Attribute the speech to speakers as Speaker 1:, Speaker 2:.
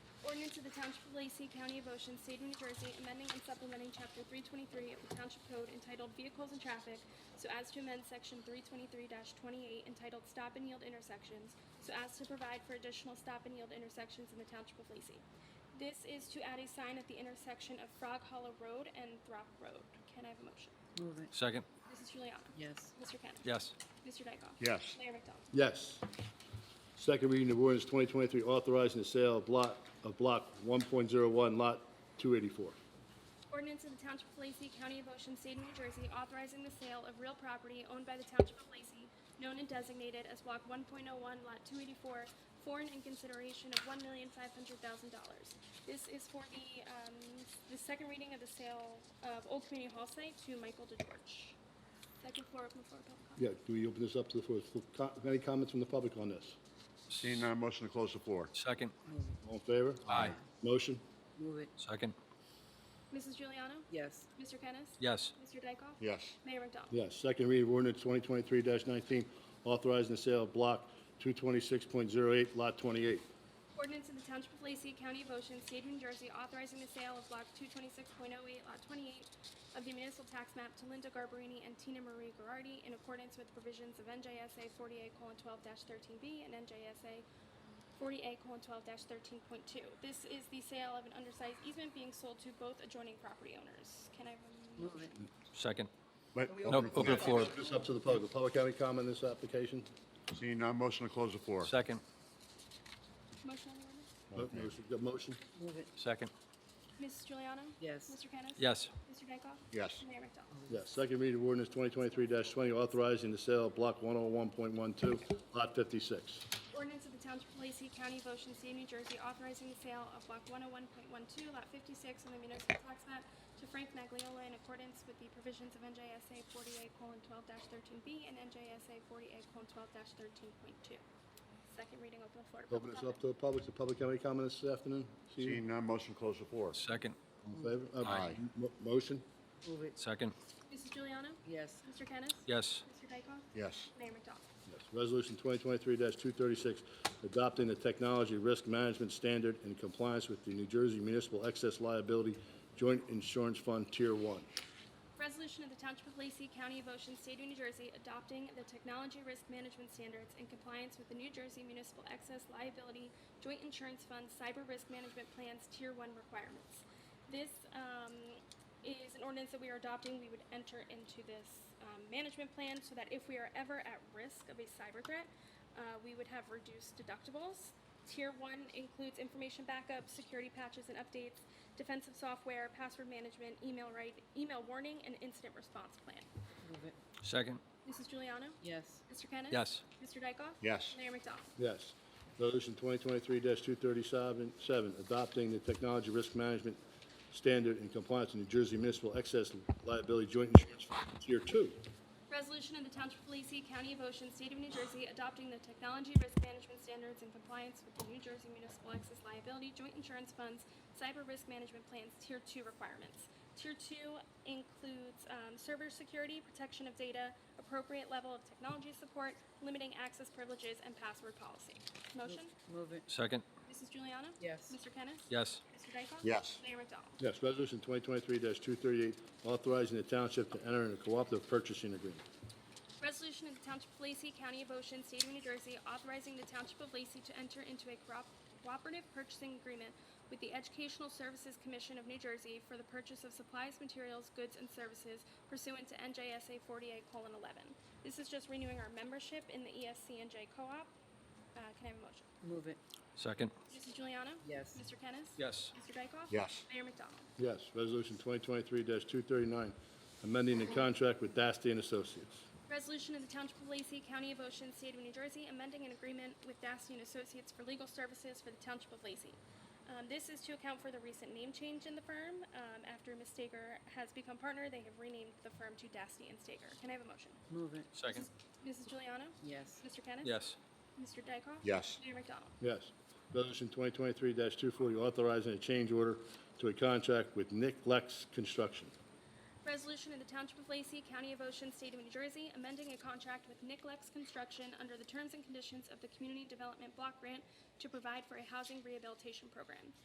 Speaker 1: pursuant to the Township of Lacey, County of Ocean, State of New Jersey, amending and supplementing Chapter 323 of the Township Code entitled Vehicles and Traffic so as to amend Section 323-28 entitled Stop and Yield Intersections so as to provide for additional stop and yield intersections in the Township of Lacey. This is to add a sign at the intersection of Frog Hollow Road and Throck Road. Can I have a motion?
Speaker 2: Move it.
Speaker 3: Second.
Speaker 1: Mrs. Juliana.
Speaker 2: Yes.
Speaker 1: Mr. Kennis.
Speaker 3: Yes.
Speaker 1: Mr. Dykoff.
Speaker 4: Yes.
Speaker 1: Mayor McDonald.
Speaker 4: Yes. Second reading of ordinance 2023 authorizing the sale of block, of block 1.01, lot 284.
Speaker 1: Ordinance of the Township of Lacey, County of Ocean, State of New Jersey, authorizing the sale of real property owned by the Township of Lacey, known and designated as Block 1.01, Lot 284, for and in consideration of $1,500,000. This is for the, um, the second reading of the sale of Old Community Hall site to Michael DeGeorge. Second floor, open the floor, public comment.
Speaker 4: Yeah, do we open this up to the floor? So, co- Any comments from the public on this?
Speaker 5: Seeing none, motion to close the floor.
Speaker 3: Second.
Speaker 4: All in favor?
Speaker 3: Aye.
Speaker 4: Motion?
Speaker 2: Move it.
Speaker 3: Second.
Speaker 1: Mrs. Juliana?
Speaker 2: Yes.
Speaker 1: Mr. Kennis?
Speaker 3: Yes.
Speaker 1: Mr. Dykoff?
Speaker 5: Yes.
Speaker 1: Mayor McDonald?
Speaker 4: Yes. Second reading of ordinance 2023-19 authorizing the sale of block 226.08, lot 28.
Speaker 1: Ordinance of the Township of Lacey, County of Ocean, State of New Jersey, authorizing the sale of block 226.08, lot 28 of the municipal tax map to Linda Garbarini and Tina Marie Garardi in accordance with provisions of NJSA 48:12-13B and NJSA 48:12-13.2. This is the sale of an undersized easement being sold to both adjoining property owners. Can I have a
Speaker 2: Move it.
Speaker 3: Second.
Speaker 5: Wait,
Speaker 3: No, open the floor.
Speaker 4: This up to the public. The public have any comment on this application?
Speaker 5: Seeing none, motion to close the floor.
Speaker 3: Second.
Speaker 1: motion on the ordinance?
Speaker 4: No, motion- the Motion?
Speaker 2: Move it.
Speaker 3: Second.
Speaker 1: Mrs. Juliana?
Speaker 2: Yes.
Speaker 1: Mr. Kennis?
Speaker 3: Yes.
Speaker 1: Mr. Dykoff?
Speaker 5: Yes.
Speaker 1: Mayor McDonald?
Speaker 4: Yes. Second reading of ordinance 2023-20 authorizing the sale of block 101.12, lot 56.
Speaker 1: Ordinance of the Township of Lacey, County of Ocean, State of New Jersey, authorizing the sale of block 101.12, lot 56 on the municipal tax map to Frank Magliola in accordance with the provisions of NJSA 48:12-13B and NJSA 48:12-13.2. Second reading, open the floor to
Speaker 4: Open
Speaker 1: public
Speaker 4: this up
Speaker 1: comment.
Speaker 4: to the public. Does the public have any comments this afternoon?
Speaker 5: Seeing none, motion to close the floor.
Speaker 3: Second.
Speaker 4: All in favor? Uh,
Speaker 5: Aye.
Speaker 4: mo- Motion?
Speaker 2: Move it.
Speaker 3: Second.
Speaker 1: Mrs. Juliana?
Speaker 2: Yes.
Speaker 1: Mr. Kennis?
Speaker 3: Yes.
Speaker 1: Mr. Dykoff?
Speaker 5: Yes.
Speaker 1: Mayor McDonald?
Speaker 4: Yes. Resolution 2023-236, adopting the technology risk management standard in compliance with the New Jersey Municipal Excess Liability Joint Insurance Fund Tier 1.
Speaker 1: Resolution of the Township of Lacey, County of Ocean, State of New Jersey, adopting the technology risk management standards in compliance with the New Jersey Municipal Excess Liability Joint Insurance Fund Cyber Risk Management Plan's Tier 1 requirements. This um, is an ordinance that we are adopting. We would enter into this um, management plan so that if we are ever at risk of a cyber threat, uh, we would have reduced deductibles. Tier one includes information backup, security patches and updates, defensive software, password management, email right, email warning, and incident response plan.
Speaker 2: Move it.
Speaker 3: Second.
Speaker 1: Mrs. Juliana?
Speaker 2: Yes.
Speaker 1: Mr. Kennis?
Speaker 3: Yes.
Speaker 1: Mr. Dykoff?
Speaker 5: Yes.
Speaker 1: Mayor McDonald?
Speaker 4: Yes. Resolution 2023-237, adopting the technology risk management standard in compliance with New Jersey Municipal Excess Liability Joint Insurance Fund Tier 2.
Speaker 1: Resolution of the Township of Lacey, County of Ocean, State of New Jersey, adopting the technology risk management standards in compliance with the New Jersey Municipal Excess Liability Joint Insurance Fund's Cyber Risk Management Plan's Tier 2 requirements. Tier 2 includes um, server security, protection of data, appropriate level of technology support, limiting access privileges, and password policy. Motion?
Speaker 2: Move it.
Speaker 3: Second.
Speaker 1: Mrs. Juliana?
Speaker 2: Yes.
Speaker 1: Mr. Kennis?
Speaker 3: Yes.
Speaker 1: Mr. Dykoff?
Speaker 5: Yes.
Speaker 1: Mayor McDonald?
Speaker 4: Yes. Resolution 2023-238, authorizing the township to enter in a cooperative purchasing agreement.
Speaker 1: Resolution of the Township of Lacey, County of Ocean, State of New Jersey, authorizing the Township of Lacey to enter into a corop- cooperative purchasing agreement with the Educational Services Commission of New Jersey for the purchase of supplies, materials, goods, and services pursuant to NJSA 48:11. This is just renewing our membership in the E ESCNJ Co-op. Uh, Can I have a motion?
Speaker 2: Move it.
Speaker 3: Second.
Speaker 1: Mrs. Juliana?
Speaker 2: Yes.
Speaker 1: Mr. Kennis?
Speaker 3: Yes.
Speaker 1: Mr. Dykoff?
Speaker 5: Yes.
Speaker 1: Mayor McDonald?
Speaker 4: Yes, Resolution 2023-239, amending the contract with Dasty and Associates.
Speaker 1: Resolution of the Township of Lacey, County of Ocean, State of New Jersey, amending an agreement with Dasty and Associates for legal services for the Township of Lacey. Um, This is to account for the recent name change in the firm. Um, After Ms. Stager has become partner, they have renamed the firm to Dasty and Stager. Can I have a motion?
Speaker 2: Move it.
Speaker 3: Second.
Speaker 1: Mrs. Juliana?
Speaker 2: Yes.
Speaker 1: Mr. Kennis?
Speaker 3: Yes.
Speaker 1: Mr. Dykoff?
Speaker 5: Yes.
Speaker 1: Mayor McDonald?
Speaker 4: Yes, Resolution 2023-240, authorizing a change order to a contract with Nick Lex Construction.
Speaker 1: Resolution of the Township of Lacey, County of Ocean, State of New Jersey, amending a contract with Nicklex Construction under the terms and conditions of the Community Development Block Grant to provide for a housing rehabilitation program.